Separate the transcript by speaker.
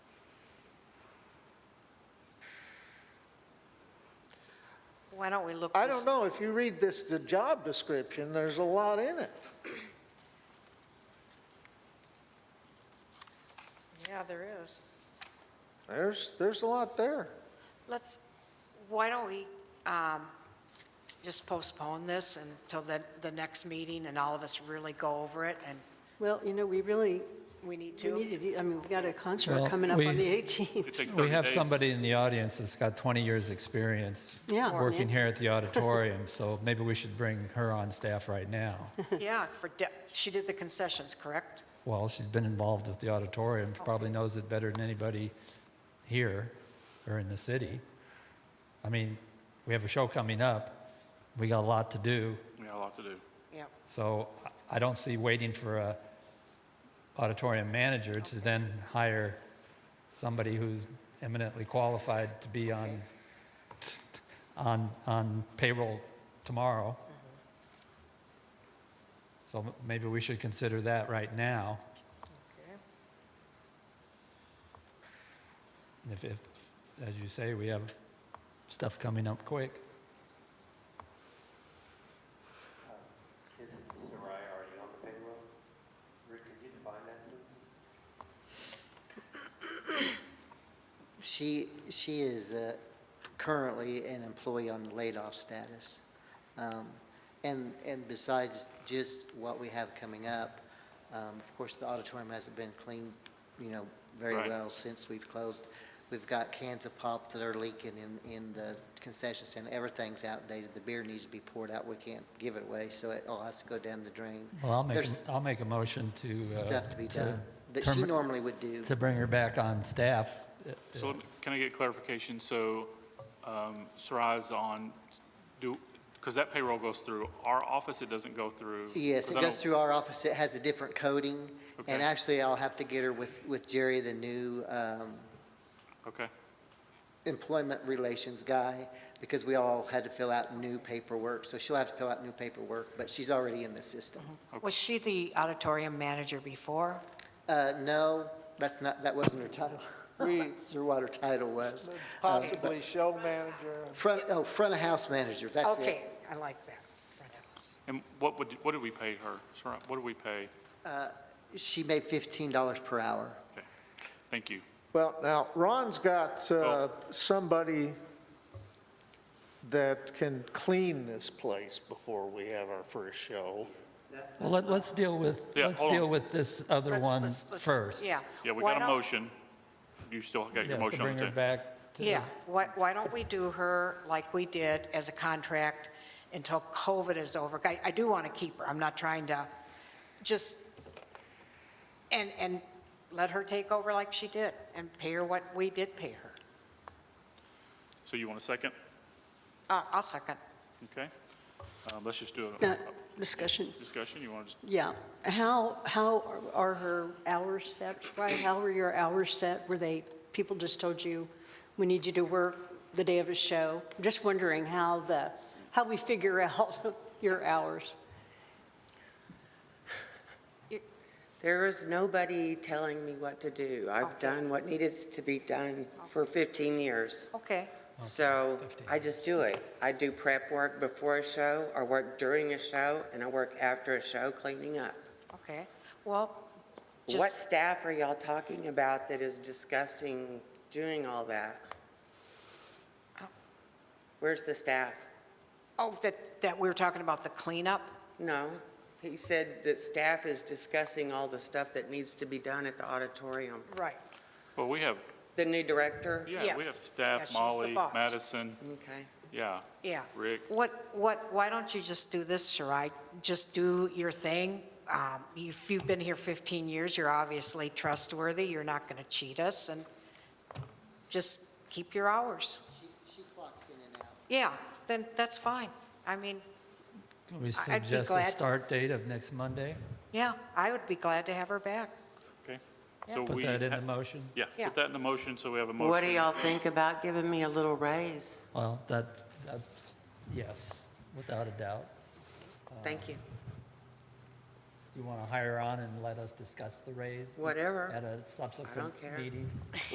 Speaker 1: Why don't we look
Speaker 2: I
Speaker 1: this-
Speaker 2: don't know, if you read this, the job description, there's a lot in it.
Speaker 1: Yeah, there is.
Speaker 2: There's, there's a lot there.
Speaker 1: Let's, why don't we um, just postpone this until the, the next meeting and all of us really go over it and
Speaker 3: Well, you know, we really,
Speaker 1: we need
Speaker 3: we
Speaker 1: to?
Speaker 3: need to, do- I mean, we got a concert
Speaker 4: Well,
Speaker 3: coming up
Speaker 4: we-
Speaker 3: on the
Speaker 5: It
Speaker 3: 18th.
Speaker 5: takes 30
Speaker 4: We have
Speaker 5: days.
Speaker 4: somebody in the audience that's got 20 years' experience
Speaker 3: Yeah.
Speaker 4: working
Speaker 3: Nancy.
Speaker 4: here at the auditorium, so maybe we should bring her on staff right now.
Speaker 1: Yeah, for, de- she did the concessions, correct?
Speaker 4: Well, she's been involved with the auditorium, probably knows it better than anybody here or in the city. I mean, we have a show coming up, we got a lot to do,
Speaker 5: We got a lot to do.
Speaker 1: Yeah.
Speaker 4: so I- I don't see waiting for a auditorium manager to then hire somebody who's eminently qualified to be on, on, on payroll tomorrow. So m- maybe we should consider that right now. And If, if, as you say, we have stuff coming up quick.
Speaker 6: Isn't Soraya already on the payroll? Rick, could you define that, please?
Speaker 7: She, she is uh, currently an employee on the laid-off status. Um, And, and besides just what we have coming up, um, of course, the auditorium hasn't been cleaned, you know, very
Speaker 5: Right.
Speaker 7: well since we've closed. We've got cans of pop that are leaking in, in the concession stand, everything's outdated, the beer needs to be poured out, we can't give it away, so it all has to go down the drain.
Speaker 4: Well, I'll make, a-
Speaker 7: There's
Speaker 4: I'll make a motion to. uh,
Speaker 7: stuff to be done that she
Speaker 4: termi-
Speaker 7: normally would do.
Speaker 4: to bring her back on staff.
Speaker 5: So let me- can I get clarification? So um, Soraya's on, do, because that payroll goes through our office, it doesn't go through?
Speaker 7: Yes,
Speaker 5: 'cause
Speaker 7: it
Speaker 5: I
Speaker 7: goes
Speaker 5: don't-
Speaker 7: through our office. It has a different coding.
Speaker 5: Okay.
Speaker 7: And actually, I'll have to get her with, with Jerry, the new um,
Speaker 5: Okay,
Speaker 7: employment relations guy, because we all had to fill out new paperwork. So she'll have to fill out new paperwork, but she's already in the system.
Speaker 1: Was she the auditorium manager before?
Speaker 7: Uh, No, that's not, that wasn't her title. That's what her title was.
Speaker 2: Possibly show manager.
Speaker 7: Front, oh, front of house manager, that's it.
Speaker 1: Okay, I like that. Front house.
Speaker 5: and what would, what did we pay her? Soraya, what did we pay?
Speaker 7: Uh, She made $15 per hour.
Speaker 5: Okay, thank you.
Speaker 2: Well, now, Ron's got uh, somebody that can clean this place before we have our first show.
Speaker 4: Well, let, let's deal with,
Speaker 5: Yeah,
Speaker 4: let's
Speaker 5: hold on.
Speaker 4: deal with this other
Speaker 1: Let's-
Speaker 4: one
Speaker 1: let's- let's-
Speaker 4: first.
Speaker 1: Yeah.
Speaker 5: Yeah, we
Speaker 1: Why
Speaker 5: got a
Speaker 1: don't-
Speaker 5: motion. You still got your
Speaker 4: Yes, to
Speaker 5: motion on
Speaker 4: bring
Speaker 5: the
Speaker 4: her
Speaker 5: table.
Speaker 4: back to.
Speaker 1: Yeah, why, why don't we do her like we did as a contract until COVID is over? I, I do want to keep her, I'm not trying to, just, and, and let her take over like she did, and pay her what we did pay her.
Speaker 5: So you want a second?
Speaker 1: Uh, I'll second.
Speaker 5: Okay. Um, Let's just do
Speaker 3: Now,
Speaker 5: a
Speaker 3: Discussion,
Speaker 5: discussion. You want to just,
Speaker 3: yeah. How, how are her hours set? Right, how were your hours set? Were they, people just told you, we need you to work the day of a show? I'm Just wondering how the, how we figure out your hours.
Speaker 8: There is nobody telling me what to do. I've done what needed to be done for 15 years.
Speaker 1: Okay,
Speaker 8: So
Speaker 4: 15
Speaker 8: I just do it. I do prep work before a show, I work during a show, and I work after a show cleaning up.
Speaker 1: okay, well,
Speaker 8: What
Speaker 1: just,
Speaker 8: staff are y'all talking about that is discussing doing all that? Where's the staff?
Speaker 1: oh, that, that we were talking about the cleanup?
Speaker 8: No, he said that staff is discussing all the stuff that needs to be done at the auditorium.
Speaker 1: Right.
Speaker 5: well, we have,
Speaker 8: The new director?
Speaker 5: yeah, we have
Speaker 1: Yes. Yeah,
Speaker 5: staff,
Speaker 1: she's the
Speaker 5: Molly,
Speaker 1: boss.
Speaker 5: Madison,
Speaker 8: Okay.
Speaker 5: yeah.
Speaker 1: Yeah.
Speaker 5: Rick.
Speaker 1: What, what, why don't you just do this, Shirai? Just do your thing. Um, If you've been here 15 years, you're obviously trustworthy, you're not going to cheat us, and just keep your hours.
Speaker 7: She, she clocks in and out.
Speaker 1: Yeah, then that's fine. I mean,
Speaker 4: Can We
Speaker 1: I- I'd be
Speaker 4: suggest a
Speaker 1: glad-
Speaker 4: start date of next Monday,
Speaker 1: yeah, I would be glad to have her back.
Speaker 5: Okay. So
Speaker 4: put
Speaker 5: we
Speaker 4: that in
Speaker 5: ha-
Speaker 4: the motion.
Speaker 5: Yeah,
Speaker 1: Yeah.
Speaker 5: put that in the motion, so we have a motion.
Speaker 8: What do y'all think about giving me a little raise?
Speaker 4: Well, that, that's, yes, without a doubt.
Speaker 8: Thank you.
Speaker 4: You want to hire on and let us discuss the raise?
Speaker 8: Whatever.
Speaker 4: At a
Speaker 8: I don't
Speaker 4: subsequent
Speaker 8: care.
Speaker 4: meeting?